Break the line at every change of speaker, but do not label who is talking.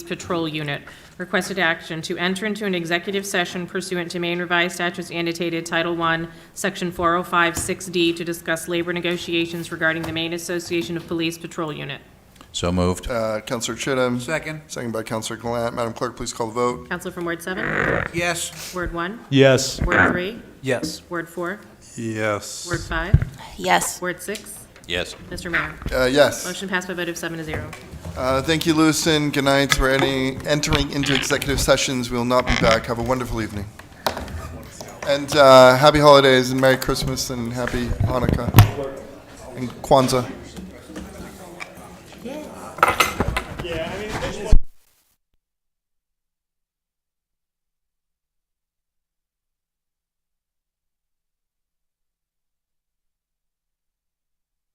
Patrol Unit. Requested action to enter into an executive session pursuant to Maine Revised Statutes annotated Title I, Section 4056D, to discuss labor negotiations regarding the Maine Association of Police Patrol Unit.
So moved.
Uh, Counselor Chittum.
Second,
Second by Counselor Glant. Madam Clerk, please call the vote.
Counselor from Ward 7?
yes.
Word 1?
Yes.
Word 3?
Yes.
Word 4?
Yes.
Word 5?
Yes.
Word 6?
Yes.
Mr. Mayor.
Uh, yes.
Motion passed by a vote of seven to zero.
Uh, thank you, Lewiston. Good night. We're ending, entering into executive sessions. We will not be back. Have a wonderful evening. And, uh, happy holidays and Merry Christmas and Happy Hanukkah and Kwanzaa.